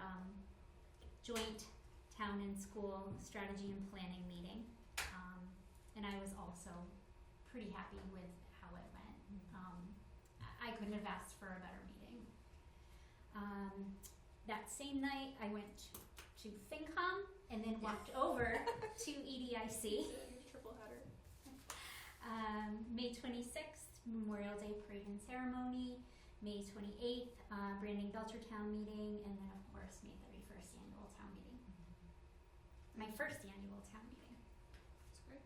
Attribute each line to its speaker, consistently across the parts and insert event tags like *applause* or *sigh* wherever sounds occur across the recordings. Speaker 1: um, joint town and school strategy and planning meeting. Um, and I was also pretty happy with how it went. Um, I- I couldn't have asked for a better meeting. Um, that same night, I went to FinCom and then walked over to E EDIC.
Speaker 2: Triple header.
Speaker 1: Um, May 26th, Memorial Day Parade and Ceremony. May 28th, uh, Brandon Belcher Town Meeting. And then, of course, May 31st, Annual Town Meeting. My first Annual Town Meeting.
Speaker 2: That's great.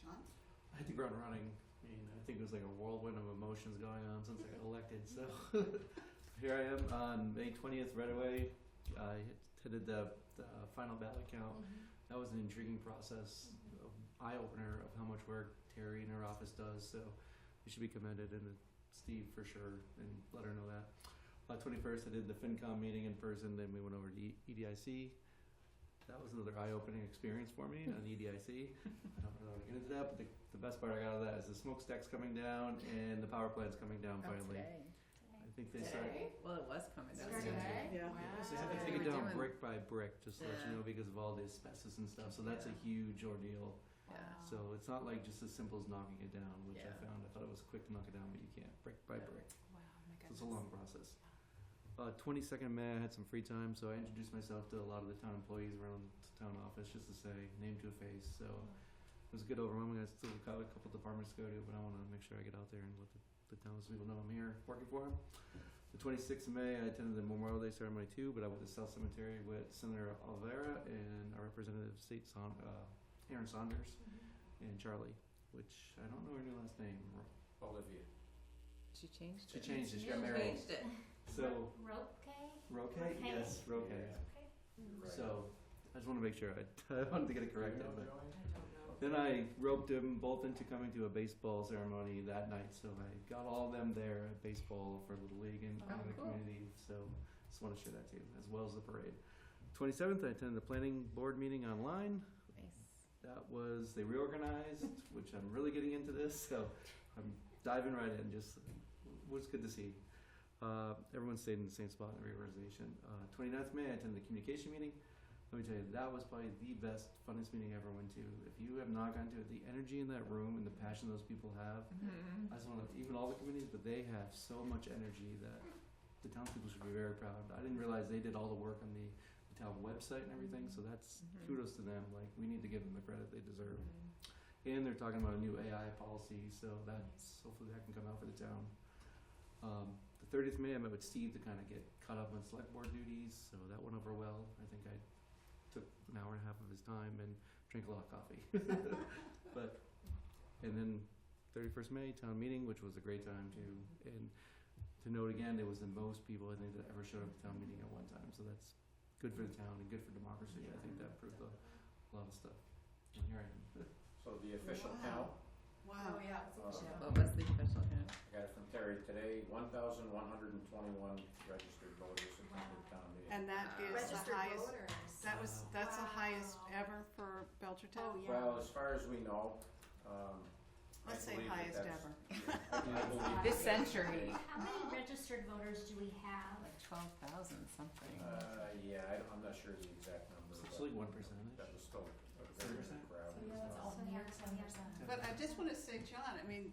Speaker 2: John?
Speaker 3: I hit the ground running. I mean, I think it was like a whirlwind of emotions going on since I got elected. So *laughs* here I am on May 20th, right away. I attended the, the final ballot count.
Speaker 1: Mm-hmm.
Speaker 3: That was an intriguing process, eye opener of how much work Terry in her office does. So we should be commended, and Steve for sure, and let her know that. Uh, 21st, I did the FinCom meeting in person, then we went over to E- EDIC. That was another eye opening experience for me on EDIC. I don't really want to get into that, but the, the best part I got out of that is the smokestack's coming down and the power plant's coming down finally. I think they start.
Speaker 4: Well, it was coming down.
Speaker 3: Started today?
Speaker 4: Yeah.
Speaker 3: They have to
Speaker 4: Wow.
Speaker 3: take it
Speaker 4: They were
Speaker 3: down
Speaker 4: doing-
Speaker 3: brick by brick, just to let you know, because of all the asbestos and stuff. So that's a huge ordeal.
Speaker 4: Yeah.
Speaker 3: So it's not like just as simple as knocking it down, which
Speaker 4: Yeah.
Speaker 3: I found. I thought it was quick to knock it down, but you can't brick by
Speaker 4: Yeah.
Speaker 3: brick.
Speaker 4: Wow, my
Speaker 3: So it's a long process. Uh, 22nd of May, I had some free time, so I introduced myself to a lot of the town employees around the town office just to say name to a face. So it was a good overwhelming. I still got a couple departments to go to, but I want to make sure I get out there and let the, the townspeople know I'm here working for them. The 26th of May, I attended the Memorial Day ceremony too, but I went to South Cemetery with Senator Alvera and our representative, State Son- uh, Aaron Saunders,
Speaker 1: Mm-hmm.
Speaker 3: and Charlie, which I don't know her new last name.
Speaker 5: Olivia.
Speaker 4: She changed
Speaker 3: She
Speaker 4: it.
Speaker 3: changed it. She
Speaker 4: She
Speaker 3: got married.
Speaker 4: changed it.
Speaker 3: So
Speaker 1: Rope
Speaker 3: Roque?
Speaker 1: Roque.
Speaker 3: Yes, Roque.
Speaker 5: Yeah.
Speaker 1: Okay.
Speaker 5: Right.
Speaker 3: So I just want to make sure I, *laughs* I wanted to get it correct.
Speaker 5: You know,
Speaker 3: but-
Speaker 5: Joey?
Speaker 3: Then I roped them both into coming to a baseball ceremony that night, so I got all of them there at baseball for Little League and
Speaker 4: Oh,
Speaker 3: in the
Speaker 4: cool.
Speaker 3: community. So just want to share that too, as well as the parade. 27th, I attended the planning board meeting online.
Speaker 4: Nice.
Speaker 3: That was they reorganized, which I'm really getting into this, so I'm diving right in. Just was good to see. Uh, everyone stayed in the same spot in the reorganization. Uh, 29th May, I attended the communication meeting. Let me tell you, that was probably the best, funnest meeting I ever went to. If you have not gone to it, the energy in that room and the passion those people have,
Speaker 4: Mhm.
Speaker 3: I just want to, even all the committees, but they have so much energy that the townspeople should be very proud. I didn't realize they did all the work on the, the town website and everything, so that's
Speaker 4: Mhm.
Speaker 3: kudos to them. Like, we need to give them the credit they deserve. And they're talking about a new AI policy, so that's hopefully that can come out for the town. Um, the 30th May, I met with Steve to kind of get caught up on select board duties, so that went over well. I think I took an hour and a half of his time and drank a lot of coffee. but and then 31st May town meeting, which was a great time too. And to note again, there was the most people I think that ever showed up at town meeting at one time, so that's good for the town and good for democracy. I think that proved a lot of stuff. And here I am.
Speaker 5: So the official
Speaker 2: Wow.
Speaker 5: count,
Speaker 1: Oh,
Speaker 2: Wow. yeah.
Speaker 5: uh,
Speaker 4: What was the official count?
Speaker 5: I got it from Terry today, one thousand one hundred and twenty-one registered voters attended town meeting.
Speaker 6: And that
Speaker 4: Uh,
Speaker 6: is the
Speaker 4: Registered
Speaker 6: highest,
Speaker 2: voters.
Speaker 6: that was, that's the highest
Speaker 2: Wow.
Speaker 6: ever for Belchertown?
Speaker 5: Well, as far as we know,
Speaker 3: *laughs*
Speaker 5: um. I
Speaker 6: Let's say
Speaker 5: believe that
Speaker 6: highest
Speaker 5: that's-
Speaker 6: ever.
Speaker 5: I believe
Speaker 4: *laughs* This
Speaker 5: that-
Speaker 4: century.
Speaker 5: Uh,
Speaker 1: How many registered voters do we have?
Speaker 4: Like 12,000 something.
Speaker 5: Uh, yeah, I, don't- I'm not sure the exact number,
Speaker 3: It's
Speaker 5: but
Speaker 3: like one percentage.
Speaker 5: that was still a very good
Speaker 3: 3%?
Speaker 5: crowd.
Speaker 2: Yeah, it's all
Speaker 1: So
Speaker 2: New
Speaker 1: yeah,
Speaker 2: York,
Speaker 1: so
Speaker 2: New
Speaker 1: yeah.
Speaker 2: York.
Speaker 6: But I just wanna say, John, I mean,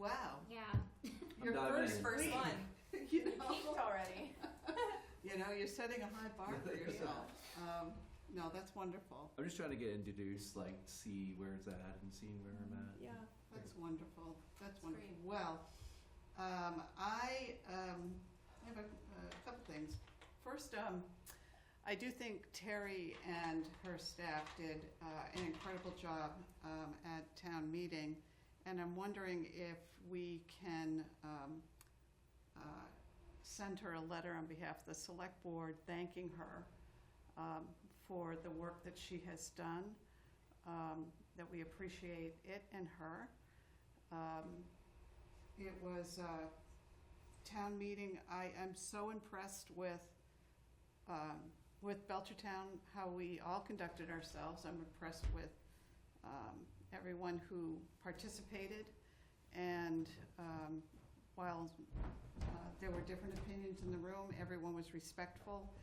Speaker 6: wow, *laughs*
Speaker 1: Yeah.
Speaker 3: I'm
Speaker 2: Your
Speaker 3: diving
Speaker 2: first
Speaker 3: in.
Speaker 2: first
Speaker 6: Wait.
Speaker 2: one.
Speaker 6: you
Speaker 2: You
Speaker 6: know,
Speaker 2: peaked already.
Speaker 6: you know, you're setting a high bar for yourself. Um, no, that's wonderful.
Speaker 3: I'm just trying to get introduced, like see where it's at and seeing where I'm at.
Speaker 2: Yeah.
Speaker 6: That's wonderful, that's
Speaker 2: That's
Speaker 6: wonderful.
Speaker 2: great.
Speaker 6: Well, um, I, um, I have a, a couple things. First, um, I do think Terry and her staff did, uh, an incredible job, um, at town meeting. And I'm wondering if we can, um, uh, send her a letter on behalf of the select board thanking her, um, for the work that she has done, um, that we appreciate it and her. Um, It was a town meeting, I am so impressed with, um, with Belchertown, how we all conducted ourselves. I'm impressed with um, everyone who participated. And um, while uh, there were different opinions in the room, everyone was respectful